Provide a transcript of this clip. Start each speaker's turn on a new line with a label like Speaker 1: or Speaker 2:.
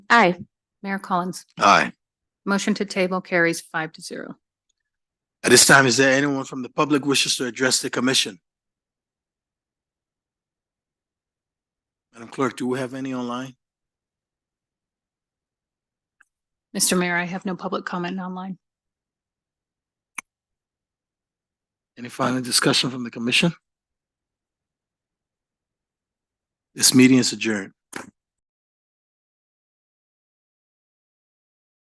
Speaker 1: Aye. Mayor Collins.
Speaker 2: Aye.
Speaker 1: Motion to table carries five to zero.
Speaker 2: At this time, is there anyone from the public wishes to address the commission? Madam Clerk, do we have any online?
Speaker 1: Mr. Mayor, I have no public comment online.
Speaker 2: Any final discussion from the commission? This meeting is adjourned.